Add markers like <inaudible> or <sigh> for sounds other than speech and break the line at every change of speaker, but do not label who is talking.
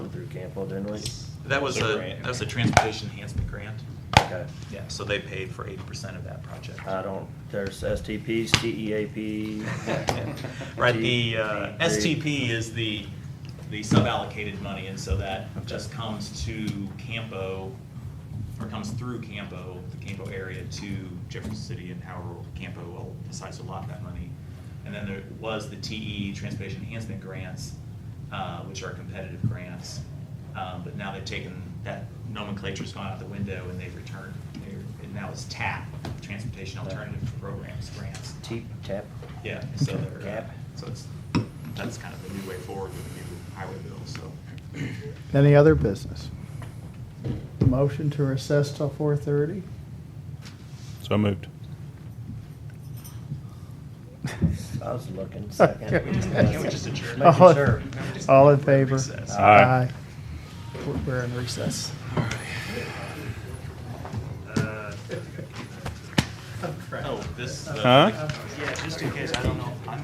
Campo, didn't we?
That was
The
a,
grant.
that was a transportation enhancement grant.
Okay.
Yeah, so they paid for eighty percent of that project.
I don't, there's STPs, TEAP.
<laughs> Right, the uh,
E T-
STP is the, the sub-allocated money, and so that just comes to Campo, or comes through Campo, the Campo area to Jefferson City and however Campo will decides to allot that money. And then there was the TE, Transportation Enhancement Grants, uh, which are competitive grants. Um, But now they've taken, that nomenclature's gone out the window and they've returned, they're- and now it's TAP, Transportation Alternative Programs Grants.
T, tap.
Yeah, so they're, uh,
Cap.
so it's, that's kind of the new way forward with the new highway bill, so.
Any other business? Motion to recess till four thirty?
So moved.
I was looking second.
<laughs> Can we just-
can we just adjourn?
Making
All-
sure.
All in favor?
Recess.
Aye.
We're- We're in recess.
Oh, this,
Huh?
Uh, yeah, just in case, I don't know, I'm